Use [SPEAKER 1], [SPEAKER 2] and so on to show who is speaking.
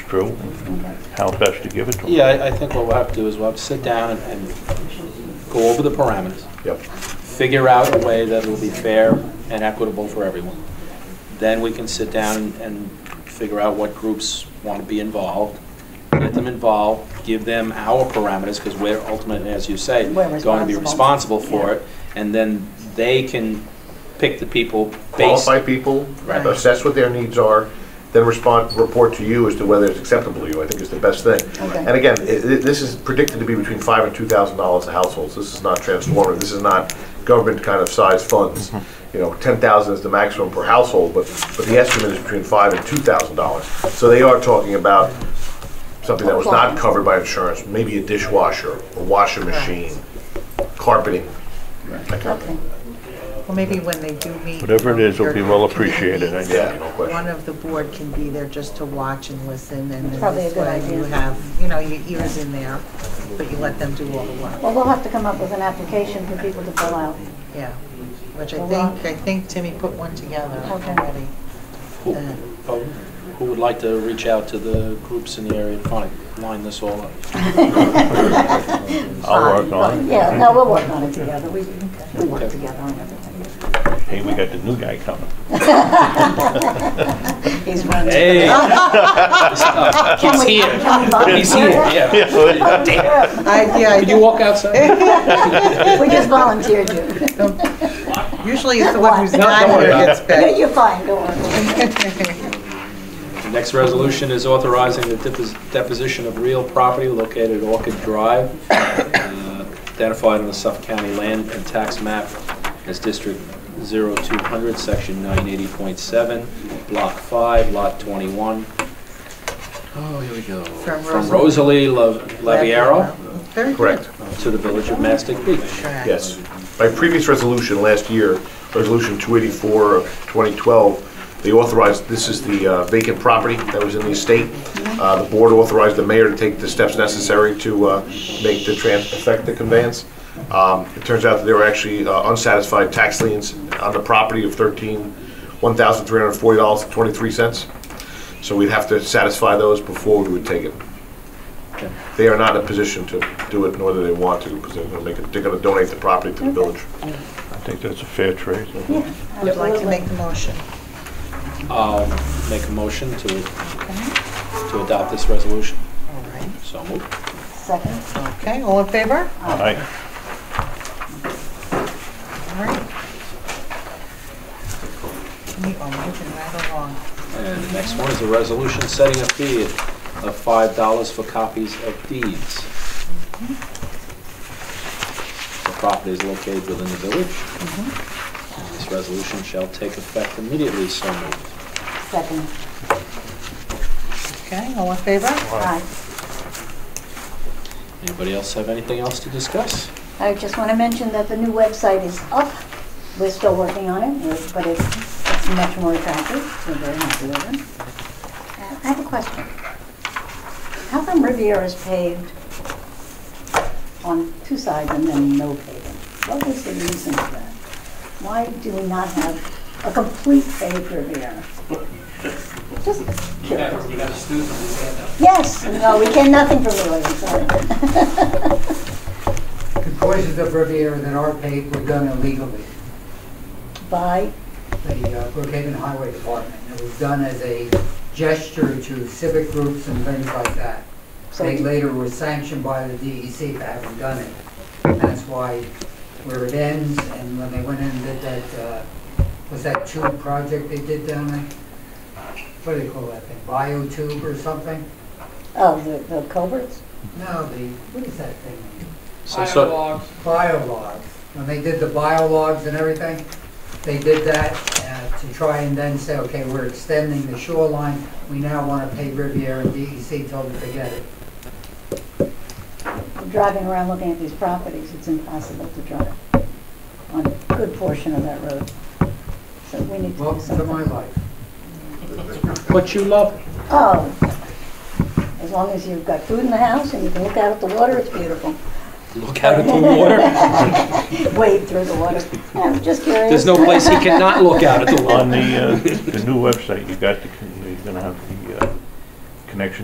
[SPEAKER 1] through and how best to give it to them.
[SPEAKER 2] Yeah, I I think what we'll have to do is we'll have to sit down and- and go over the parameters,
[SPEAKER 1] Yep.
[SPEAKER 2] figure out a way that will be fair and equitable for everyone. Then we can sit down and figure out what groups want to be involved, get them involved, give them our parameters, because we're ultimately, as you say,
[SPEAKER 3] We're
[SPEAKER 2] going to be
[SPEAKER 3] responsible.
[SPEAKER 2] responsible for it, and then they can pick the people based.
[SPEAKER 4] qualify people,
[SPEAKER 2] Right.
[SPEAKER 4] assess what their needs are, then respond, report to you as to whether it's acceptable to you, I think is the best thing.
[SPEAKER 3] Okay.
[SPEAKER 4] And again, i- i- this is predicted to be between five and two thousand dollars a household, this is not transformative, this is not government kind of size funds.
[SPEAKER 3] Mm-hmm.
[SPEAKER 4] You know, ten thousand is the maximum per household, but, but the estimate is between five and two thousand dollars. So they are talking about something that was not covered by insurance, maybe a dishwasher, a washer machine, carpeting, that kind of
[SPEAKER 3] Okay.
[SPEAKER 4] thing.
[SPEAKER 3] Well, maybe when they do meet. um,
[SPEAKER 1] Whatever it is, it'll be
[SPEAKER 3] your
[SPEAKER 1] well appreciated, I
[SPEAKER 3] committees,
[SPEAKER 4] Yeah, no question.
[SPEAKER 3] One of the board can be there just to watch and listen, and then
[SPEAKER 5] Probably a
[SPEAKER 3] this
[SPEAKER 5] good
[SPEAKER 3] way you
[SPEAKER 5] idea.
[SPEAKER 3] have, you know, your ears in there, but you let them do all the work,
[SPEAKER 5] Well, we'll have to come up with an application for people to fill out.
[SPEAKER 3] yeah. Which I
[SPEAKER 5] Well,
[SPEAKER 3] think, I think Timmy put one together
[SPEAKER 5] Okay.
[SPEAKER 3] already.
[SPEAKER 2] Who
[SPEAKER 3] Uh,
[SPEAKER 2] oh, who would like to reach out to the groups in the area and kind of line this all up?
[SPEAKER 1] I'll work on it.
[SPEAKER 5] Yeah, no, we'll work on it together. We, we work together on everything.
[SPEAKER 1] Hey, we got the new guy coming.
[SPEAKER 5] He's running.
[SPEAKER 2] Hey.
[SPEAKER 5] Can
[SPEAKER 2] He's
[SPEAKER 5] we-
[SPEAKER 2] here.
[SPEAKER 5] can we volunteer?
[SPEAKER 2] He's here, yeah.
[SPEAKER 3] I, yeah, I
[SPEAKER 2] Could you walk outside?
[SPEAKER 5] We just volunteered you.
[SPEAKER 3] don't- usually it's the one who's not
[SPEAKER 2] worry
[SPEAKER 3] here
[SPEAKER 2] about
[SPEAKER 3] gets
[SPEAKER 5] You're-
[SPEAKER 3] picked.
[SPEAKER 5] You're fine, don't worry.
[SPEAKER 2] Next resolution is authorizing the depos- deposition of real property located at Orchid Drive, uh, identified on the Suffolk County land and tax map as District 0200, Section 980.7, Block 5, Lot 21. Oh, here we go.
[SPEAKER 3] From
[SPEAKER 2] From Rosalie
[SPEAKER 3] Rosalie-
[SPEAKER 2] La- Laviero
[SPEAKER 3] Very good.
[SPEAKER 4] Correct.
[SPEAKER 2] to the village of Mastic Beach.
[SPEAKER 3] Correct.
[SPEAKER 4] Yes. By previous resolution last year, Resolution 284 of 2012, they authorized, this is the uh, vacant property that was in the estate. Uh, The board authorized the mayor to take the steps necessary to uh, make the trans, affect the conveyance. Um, It turns out that there were actually uh, unsatisfied tax liens on the property of 13, $1,340.23. So we'd have to satisfy those before we would take it. They are not in a position to do it, nor do they want to, because they're gonna make, it- they're gonna donate the property to the village.
[SPEAKER 1] I think that's a fair trade.
[SPEAKER 3] I would like to make the motion.
[SPEAKER 2] I'll make a motion to, to adopt this resolution.
[SPEAKER 3] All right,
[SPEAKER 2] So moved.
[SPEAKER 5] Second.
[SPEAKER 3] okay, all in favor?
[SPEAKER 1] Aye.
[SPEAKER 3] All right. Keep on moving right along.
[SPEAKER 2] And the next one is a resolution setting a fee of five dollars for copies of deeds. The property is located within the village. And This resolution shall take effect immediately, so moved.
[SPEAKER 5] Second.
[SPEAKER 3] Okay, all in favor?
[SPEAKER 5] Aye.
[SPEAKER 2] Anybody else have anything else to discuss?
[SPEAKER 5] I just want to mention that the new website is up. We're still working on it, we're- but it's it's much more attractive. We're very happy with it. Uh, I have a question. How come Riviera is paved on two sides and then no paving? What was the reason for that? Why do we not have a complete paved Riviera? Just curious. Yes, no, we get nothing from the lady, sorry.
[SPEAKER 6] The courses of Riviera that are paved were done illegally.
[SPEAKER 5] By,
[SPEAKER 6] The uh, Brookhaven Highway Department, it was done as a gesture to civic groups and things like that.
[SPEAKER 5] so
[SPEAKER 6] They later were sanctioned by the DEC for having done it. And That's why where it ends, and when they went in and did that, uh, was that tube project they did down there? What do they call that thing, biotube or something?
[SPEAKER 5] Oh, the, the culverts?
[SPEAKER 6] No, the, what is that thing?
[SPEAKER 2] So- so-
[SPEAKER 6] biologs. When they did the biologs and everything, they did that uh, to try and then say, okay, we're extending the shoreline. We now want to pay Riviera and E DEC told them to forget it.
[SPEAKER 5] Driving around looking at these properties, it's impossible to drive on a good portion of that road. So we need to do
[SPEAKER 6] Welcome to my
[SPEAKER 5] something.
[SPEAKER 6] life.
[SPEAKER 2] But you love, it.
[SPEAKER 5] Oh, as long as you've got food in the house and you can look out at the water, it's beautiful.
[SPEAKER 2] look out at the water.
[SPEAKER 5] Wade through the water. I'm just curious.
[SPEAKER 2] There's no place he cannot look out at the water.
[SPEAKER 1] On the, uh, the new website, you got the, con- you're gonna have the uh, connection